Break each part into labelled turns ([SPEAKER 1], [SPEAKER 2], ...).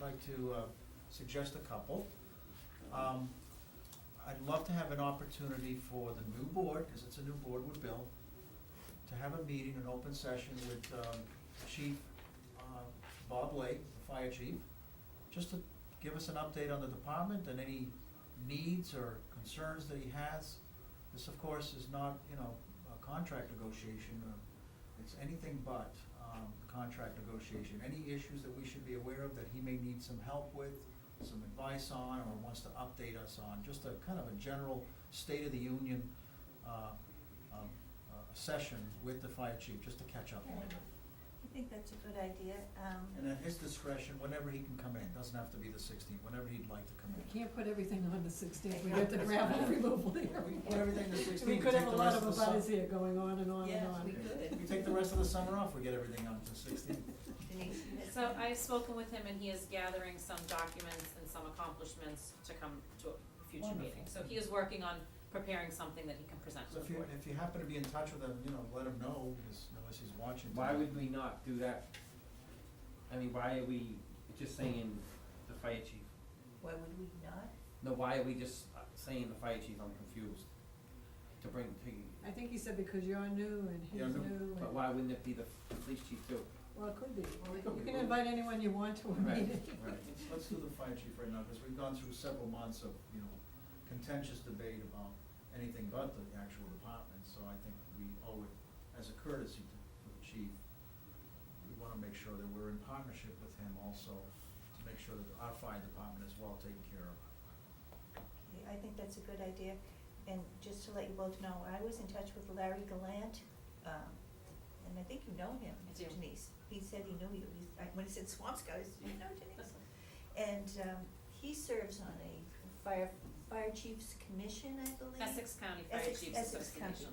[SPEAKER 1] like to uh, suggest a couple. Um, I'd love to have an opportunity for the new board, because it's a new board with Bill, to have a meeting, an open session with um, Chief uh, Bob Lake, the fire chief, just to give us an update on the department and any needs or concerns that he has. This, of course, is not, you know, a contract negotiation, or it's anything but um, contract negotiation. Any issues that we should be aware of that he may need some help with, some advice on, or wants to update us on, just a kind of a general state of the union uh, um, uh, session with the fire chief, just to catch up on it.
[SPEAKER 2] I think that's a good idea, um.
[SPEAKER 1] And at his discretion, whenever he can come in, doesn't have to be the sixteenth, whenever he'd like to come
[SPEAKER 3] We
[SPEAKER 1] in.
[SPEAKER 3] can't put everything on the sixteenth, we have the gravel removal there.
[SPEAKER 1] We put everything to 16th,
[SPEAKER 3] We
[SPEAKER 1] we
[SPEAKER 3] could
[SPEAKER 1] take
[SPEAKER 3] have a
[SPEAKER 1] the
[SPEAKER 3] lot
[SPEAKER 1] rest
[SPEAKER 3] of
[SPEAKER 1] of the
[SPEAKER 3] abutters
[SPEAKER 1] sum-
[SPEAKER 3] here going on and on and
[SPEAKER 2] Yes, we
[SPEAKER 3] on.
[SPEAKER 2] could.
[SPEAKER 1] We take the rest of the summer off, we get everything on to sixteenth.
[SPEAKER 2] Denise, you had
[SPEAKER 4] So
[SPEAKER 2] some-
[SPEAKER 4] I've spoken with him and he is gathering some documents and some accomplishments to come to a future meeting.
[SPEAKER 1] Wonderful.
[SPEAKER 4] So he is working on preparing something that he can present
[SPEAKER 1] So
[SPEAKER 4] to
[SPEAKER 1] if
[SPEAKER 4] the
[SPEAKER 1] you,
[SPEAKER 4] board.
[SPEAKER 1] if you happen to be in touch with him, you know, let him know, 'cause unless he's watching.
[SPEAKER 5] Why would we not do that? I mean, why are we just saying the fire chief?
[SPEAKER 2] Why would we not?
[SPEAKER 5] No, why are we just uh, saying the fire chief? I'm confused. To bring to,
[SPEAKER 3] I think he said because you're new and he's
[SPEAKER 1] Yeah, no,
[SPEAKER 3] new
[SPEAKER 5] but
[SPEAKER 3] and,
[SPEAKER 5] why wouldn't it be the the police chief too?
[SPEAKER 3] well, it could be.
[SPEAKER 2] Well, it
[SPEAKER 3] You
[SPEAKER 2] could
[SPEAKER 3] can
[SPEAKER 1] be.
[SPEAKER 3] invite anyone you want to a
[SPEAKER 5] Right,
[SPEAKER 3] meeting.
[SPEAKER 5] right.
[SPEAKER 1] Let's do the fire chief right now, because we've gone through several months of, you know, contentious debate about anything but the actual department, so I think we owe it as a courtesy to to the chief. We wanna make sure that we're in partnership with him also, to make sure that our fire department is well taken care of.
[SPEAKER 2] Okay, I think that's a good idea, and just to let you both know, I was in touch with Larry Gallant, um, and I think you know him,
[SPEAKER 4] I do.
[SPEAKER 2] Denise. He said he knew you, he's, I, when he said Swampscott, I said, you know Denise? And, um, he serves on a fire, fire chiefs commission, I believe.
[SPEAKER 4] Essex County Fire
[SPEAKER 2] Essex-
[SPEAKER 4] Chiefs
[SPEAKER 2] Essex County.
[SPEAKER 4] Association.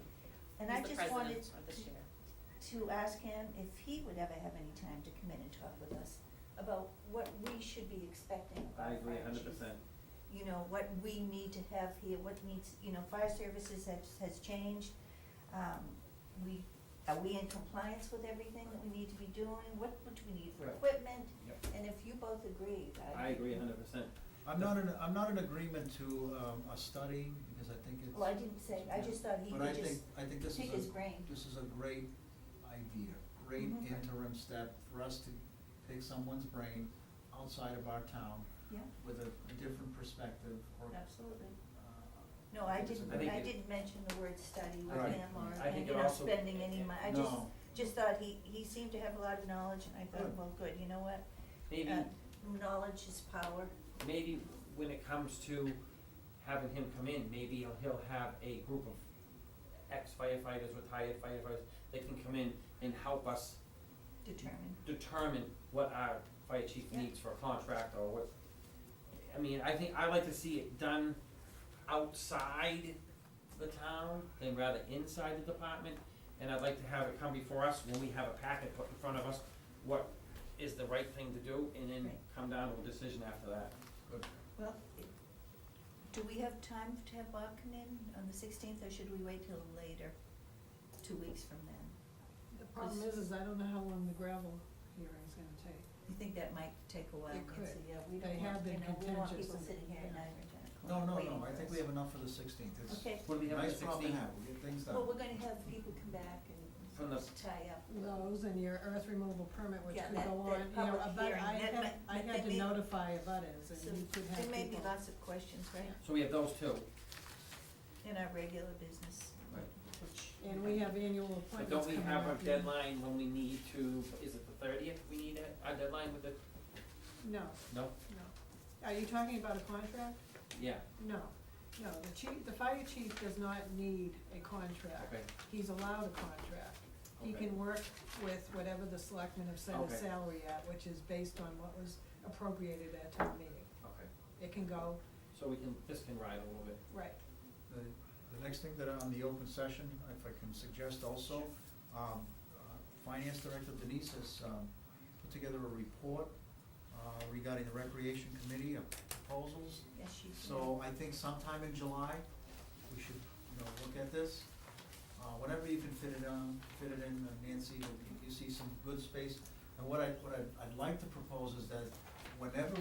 [SPEAKER 2] And I
[SPEAKER 4] He's the
[SPEAKER 2] just wanted
[SPEAKER 4] president or the
[SPEAKER 2] to-
[SPEAKER 4] chair.
[SPEAKER 2] to ask him if he would ever have any time to come in and talk with us about what we should be expecting of our
[SPEAKER 5] I agree
[SPEAKER 2] fire
[SPEAKER 5] hundred
[SPEAKER 2] chiefs.
[SPEAKER 5] percent.
[SPEAKER 2] You know, what we need to have here, what needs, you know, fire services has, has changed. Um, we, are we in compliance with everything that we need to be doing? What, what do we need for
[SPEAKER 5] Right.
[SPEAKER 2] equipment?
[SPEAKER 5] Yep.
[SPEAKER 2] And if you both agree, I.
[SPEAKER 5] I agree hundred percent.
[SPEAKER 1] I'm not in, I'm not in agreement to, um, a study, because I think it's.
[SPEAKER 2] Well, I didn't say, I just thought he
[SPEAKER 1] But
[SPEAKER 2] could
[SPEAKER 1] I
[SPEAKER 2] just
[SPEAKER 1] think, I think this is a.
[SPEAKER 2] pick his brain.
[SPEAKER 1] This is a great idea, great
[SPEAKER 2] Mhm.
[SPEAKER 1] interim step for us to pick someone's brain outside of our town
[SPEAKER 2] Yeah,
[SPEAKER 1] with a, a different perspective or.
[SPEAKER 2] absolutely.
[SPEAKER 1] uh,
[SPEAKER 2] No, I
[SPEAKER 1] think it's a
[SPEAKER 2] didn't,
[SPEAKER 5] I
[SPEAKER 1] great-
[SPEAKER 5] think
[SPEAKER 2] I
[SPEAKER 5] it-
[SPEAKER 2] didn't mention the word study with
[SPEAKER 1] Right.
[SPEAKER 2] him or,
[SPEAKER 5] I
[SPEAKER 2] and,
[SPEAKER 5] think it
[SPEAKER 2] you know,
[SPEAKER 5] also-
[SPEAKER 2] spending any money. I just,
[SPEAKER 1] No.
[SPEAKER 2] just thought he, he seemed to have a lot of knowledge and I thought,
[SPEAKER 1] Good.
[SPEAKER 2] well, good, you know what?
[SPEAKER 5] Maybe,
[SPEAKER 2] Uh, Knowledge is power.
[SPEAKER 5] maybe when it comes to having him come in, maybe he'll, he'll have a group of ex firefighters, retired firefighters, that can come in and help us
[SPEAKER 2] Determined.
[SPEAKER 5] determine what our fire chief
[SPEAKER 2] Yeah.
[SPEAKER 5] needs for a contract or what, I mean, I think, I like to see it done outside the town than rather inside the department. And I'd like to have it come before us when we have a packet put in front of us, what is the right thing to do, and then
[SPEAKER 2] Right.
[SPEAKER 5] come down to a decision after that.
[SPEAKER 1] Good.
[SPEAKER 2] Well, it- do we have time to have Bob come in on the sixteenth or should we wait till later? Two weeks from then?
[SPEAKER 3] The problem is, is I don't know how long the gravel hearing's gonna take.
[SPEAKER 2] You think that might take a while?
[SPEAKER 3] It
[SPEAKER 2] Nancy?
[SPEAKER 3] could.
[SPEAKER 2] Yeah, we
[SPEAKER 3] They
[SPEAKER 2] don't
[SPEAKER 3] have
[SPEAKER 2] want, you
[SPEAKER 3] been
[SPEAKER 2] know, we don't want
[SPEAKER 3] contentious
[SPEAKER 2] people
[SPEAKER 3] and-
[SPEAKER 2] sitting here at
[SPEAKER 3] yeah.
[SPEAKER 2] nine or ten
[SPEAKER 1] No,
[SPEAKER 2] o'clock
[SPEAKER 1] no,
[SPEAKER 2] waiting
[SPEAKER 1] no, I
[SPEAKER 2] for
[SPEAKER 1] think
[SPEAKER 2] us.
[SPEAKER 1] we have enough for the sixteenth, it's
[SPEAKER 2] Okay.
[SPEAKER 5] What do we have on
[SPEAKER 1] nice
[SPEAKER 5] the
[SPEAKER 1] problem to
[SPEAKER 5] 16th?
[SPEAKER 1] have, we get things done.
[SPEAKER 2] Well, we're gonna have people come back and
[SPEAKER 5] From the-
[SPEAKER 2] tie up.
[SPEAKER 3] Those and your earth removal permit, which
[SPEAKER 2] Yeah,
[SPEAKER 3] could
[SPEAKER 2] that- that
[SPEAKER 3] go on, you know,
[SPEAKER 2] public
[SPEAKER 3] abut,
[SPEAKER 2] hearing,
[SPEAKER 3] I
[SPEAKER 2] that
[SPEAKER 3] had,
[SPEAKER 2] might-
[SPEAKER 3] I
[SPEAKER 2] that
[SPEAKER 3] had
[SPEAKER 2] may-
[SPEAKER 3] to notify abutters
[SPEAKER 2] So
[SPEAKER 3] and you could have
[SPEAKER 2] there
[SPEAKER 3] people.
[SPEAKER 2] may be lots of questions, right,
[SPEAKER 5] So we have those two.
[SPEAKER 2] in our regular business,
[SPEAKER 5] Right.
[SPEAKER 2] which.
[SPEAKER 3] And we have annual appointments
[SPEAKER 5] But don't we
[SPEAKER 3] coming
[SPEAKER 5] have a
[SPEAKER 3] up, yeah.
[SPEAKER 5] deadline when we need to, is it the thirtieth we need a, a deadline with the,
[SPEAKER 3] No,
[SPEAKER 5] no?
[SPEAKER 3] no. Are you talking about a contract?
[SPEAKER 5] Yeah,
[SPEAKER 3] No, no, the chief, the fire chief does not need a contract.
[SPEAKER 5] okay,
[SPEAKER 3] He's allowed a contract. He
[SPEAKER 5] Okay.
[SPEAKER 3] can work with whatever the selectmen have set
[SPEAKER 5] Okay.
[SPEAKER 3] his salary at, which is based on what was appropriated at town meeting.
[SPEAKER 5] okay.
[SPEAKER 3] It can go,
[SPEAKER 5] So we can, this can ride a little bit.
[SPEAKER 3] right,
[SPEAKER 1] The, the next thing that on the open session, if I can suggest also, um, uh, Finance Director Denise has, um, put together a report, uh, regarding the Recreation Committee of proposals.
[SPEAKER 2] Yes, she did.
[SPEAKER 1] So I think sometime in July, we should, you know, look at this. Uh, whenever you can fit it on, fit it in, uh, Nancy, if you see some good space. And what I, what I, I'd like to propose is that whenever